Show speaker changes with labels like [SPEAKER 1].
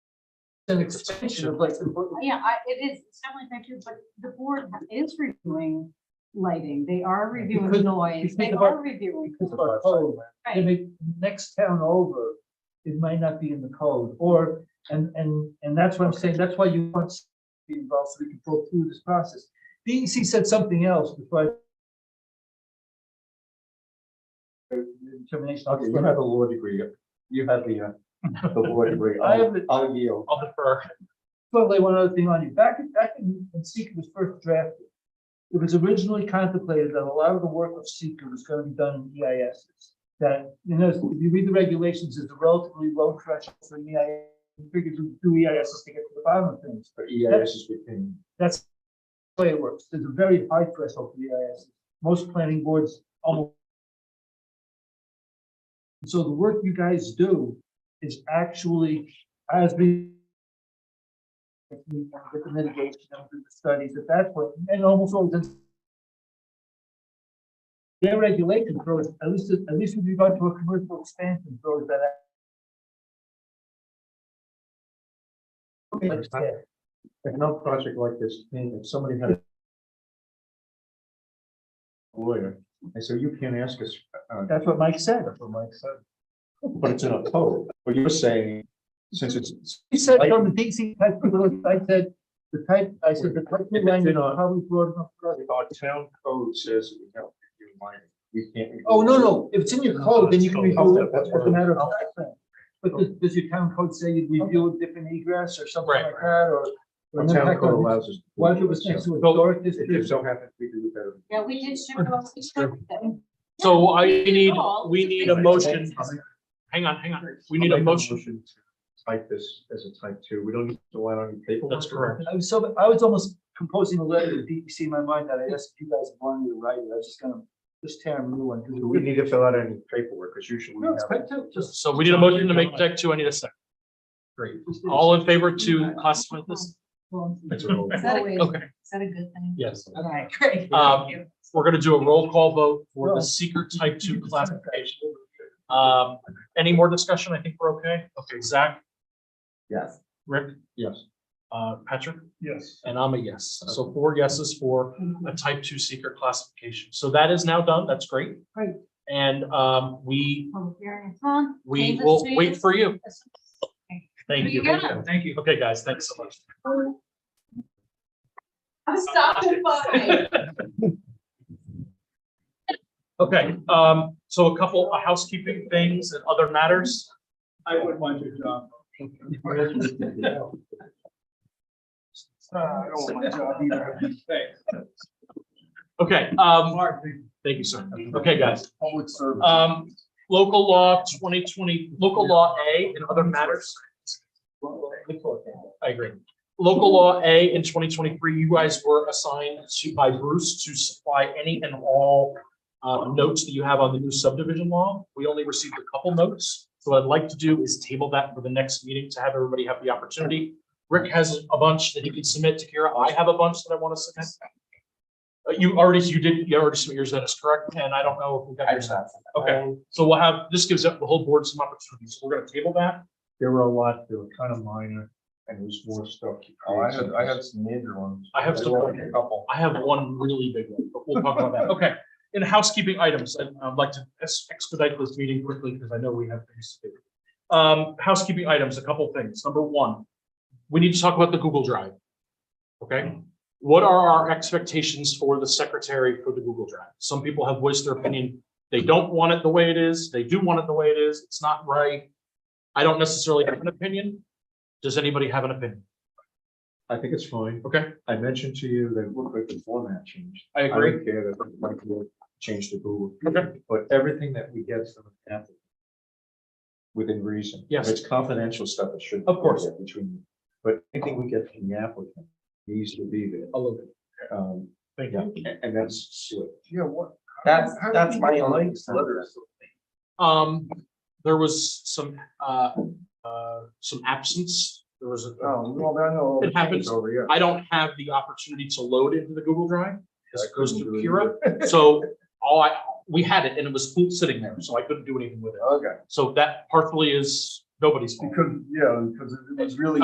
[SPEAKER 1] an extension of like the book.
[SPEAKER 2] Yeah, I, it is, it's definitely effective, but the board is reviewing lighting, they are
[SPEAKER 1] Because-
[SPEAKER 2] reviewing noise, they
[SPEAKER 1] because of our-
[SPEAKER 2] are reviewing.
[SPEAKER 1] Because of our code,
[SPEAKER 2] Right.
[SPEAKER 1] maybe next town over, it might not be in the code, or, and, and, and that's what I'm saying, that's why you want to be involved, so we can go through this process. DEC said something else before I. Determination.
[SPEAKER 3] Okay, you have a law degree. You have the, uh, the law degree.
[SPEAKER 1] I have the-
[SPEAKER 3] I'll yield.
[SPEAKER 4] I'll defer.
[SPEAKER 1] Totally one other thing on you. Back, back in, when seeker was first drafted, it was originally contemplated that a lot of the work of seeker was gonna be done in EIS. That, you know, if you read the regulations, it's a relatively low threshold for an EIS, you figure to do EIS to get to the bottom of things.
[SPEAKER 3] For E EIS is within.
[SPEAKER 1] That's the way it works. There's a very high threshold for EIS. Most planning boards almost. So the work you guys do is actually has been. With the mitigation and the studies at that point, and almost all the. Their regulation throws, at least, at least with regard to a commercial expansion, throws that. out. Like I said,
[SPEAKER 3] If no project like this, then if somebody had. a Lawyer, and so you can't ask us, uh,
[SPEAKER 1] That's what Mike said.
[SPEAKER 3] for Mike said. But it's in a code, but you're saying, since it's.
[SPEAKER 1] He said from the DC, type of laws, I said, the type, I said, the type of language is probably broad enough. for us.
[SPEAKER 3] Our town code says we have to do mining, we can't.
[SPEAKER 1] Oh, no, no, if it's in your code, then you can review it, that's a matter of fact. But does, does your town code say you review a different egress or something
[SPEAKER 4] Right.
[SPEAKER 1] like that, or? or
[SPEAKER 3] Our
[SPEAKER 1] an
[SPEAKER 3] town
[SPEAKER 1] impact on-
[SPEAKER 3] code allows us. to do
[SPEAKER 1] What if it
[SPEAKER 3] that,
[SPEAKER 1] was
[SPEAKER 3] so
[SPEAKER 1] next to a historic
[SPEAKER 3] If
[SPEAKER 1] district?
[SPEAKER 3] so happens, we do better.
[SPEAKER 2] Yeah, we did ship them, we shipped them.
[SPEAKER 4] So I
[SPEAKER 2] We did
[SPEAKER 4] need,
[SPEAKER 2] it all.
[SPEAKER 4] we need a motion. Hang on, hang on. We need
[SPEAKER 3] I'll
[SPEAKER 4] a
[SPEAKER 3] make
[SPEAKER 4] motion.
[SPEAKER 3] to Type this as a type two, we don't need to rely on paper.
[SPEAKER 4] That's correct.
[SPEAKER 1] I was so, I was almost composing a letter to DC in my mind that I asked if you guys wanted me to write it, I was just gonna, just tear a new one.
[SPEAKER 3] We wouldn't need to fill out any paperwork, because usually we
[SPEAKER 1] No, it's
[SPEAKER 3] have.
[SPEAKER 1] type two, just.
[SPEAKER 4] So we need a motion to make deck two. I need a second.
[SPEAKER 3] Great.
[SPEAKER 4] All in favor to classify this?
[SPEAKER 3] That's a roll.
[SPEAKER 2] Is that a, is
[SPEAKER 4] Okay,
[SPEAKER 2] that a good thing?
[SPEAKER 4] yes.
[SPEAKER 2] Okay, great.
[SPEAKER 4] Um,
[SPEAKER 2] Thank you.
[SPEAKER 4] We're gonna do a roll call vote for the seeker type two classification. Um, any more discussion? I think we're okay. Okay, Zach,
[SPEAKER 3] Yes.
[SPEAKER 4] Rick,
[SPEAKER 3] Yes.
[SPEAKER 4] uh, Patrick,
[SPEAKER 1] Yes.
[SPEAKER 4] and I'm a yes. So four yeses for a type two seeker classification. So that is now done. That's great.
[SPEAKER 2] Great.
[SPEAKER 4] And, um, we,
[SPEAKER 2] Public hearing is on.
[SPEAKER 4] we
[SPEAKER 2] Davis
[SPEAKER 4] will
[SPEAKER 2] Street
[SPEAKER 4] wait
[SPEAKER 2] is-
[SPEAKER 4] for you.
[SPEAKER 2] There
[SPEAKER 4] Thank
[SPEAKER 2] you
[SPEAKER 4] you.
[SPEAKER 2] go.
[SPEAKER 4] Thank you. Okay, guys, thanks so much.
[SPEAKER 2] I'm stopping by.
[SPEAKER 4] Okay, um, so a couple of housekeeping things and other matters.
[SPEAKER 1] I would want your job. I don't want my job either.
[SPEAKER 4] Okay, um,
[SPEAKER 1] Mark, the
[SPEAKER 4] thank you, sir. Okay, guys.
[SPEAKER 1] public service.
[SPEAKER 4] Um, local law twenty twenty, local law A and other matters. I agree. Local law A in twenty twenty-three, you guys were assigned to, by Bruce to supply any and all uh, notes that you have on the new subdivision law. We only received a couple notes. So what I'd like to do is table that for the next meeting to have everybody have the opportunity. Rick has a bunch that he can submit to Kira. I have a bunch that I want to submit. Uh, You already, you did, you already submitted yours, that is correct, and I don't know if we got yours. Okay, so we'll have, this gives up the whole board some opportunities. So we're gonna table that.
[SPEAKER 3] There were a lot, they were kind of minor, and there was more stuff.
[SPEAKER 5] Oh, I had, I had some major ones.
[SPEAKER 4] I have some-
[SPEAKER 5] A couple.
[SPEAKER 4] I have one really big one, but we'll talk about that. Okay. In housekeeping items, I'd, I'd like to ex- expedite this meeting quickly because I know we have things to do. Um, housekeeping items, a couple things. Number one, we need to talk about the Google Drive. Okay, what are our expectations for the secretary for the Google Drive? Some people have voiced their opinion. They don't want it the way it is. They do want it the way it is. It's not right. I don't necessarily have an opinion. Does anybody have an opinion?
[SPEAKER 3] I think it's fine.
[SPEAKER 4] Okay.
[SPEAKER 3] I mentioned to you that look like the format changed.
[SPEAKER 4] I
[SPEAKER 3] I
[SPEAKER 4] agree.
[SPEAKER 3] don't care that Mike changed to Google.
[SPEAKER 4] Okay.
[SPEAKER 3] But everything that we get from Apple. Within reason.
[SPEAKER 4] Yes.
[SPEAKER 3] If it's confidential stuff, it should.
[SPEAKER 4] Of course.
[SPEAKER 3] Between, but anything we get from the applicant needs to be there.
[SPEAKER 4] A little bit.
[SPEAKER 3] Um,
[SPEAKER 4] Thank
[SPEAKER 3] yeah,
[SPEAKER 4] you.
[SPEAKER 3] a- and that's.
[SPEAKER 1] Yeah, what?
[SPEAKER 5] That's,
[SPEAKER 1] How do
[SPEAKER 5] that's
[SPEAKER 1] we
[SPEAKER 5] my
[SPEAKER 1] get
[SPEAKER 5] only.
[SPEAKER 1] links to others?
[SPEAKER 4] Um, there was some, uh, uh, some absence. There was, a-
[SPEAKER 5] Oh, well, I know.
[SPEAKER 4] It happens.
[SPEAKER 5] Over here.
[SPEAKER 4] I don't have the opportunity to load into the Google Drive. This goes to Kira. So all I, we had it and it was full sitting there, so I couldn't do anything with it.
[SPEAKER 5] Okay,
[SPEAKER 4] So that partially is nobody's fault.
[SPEAKER 5] because, yeah, because it was really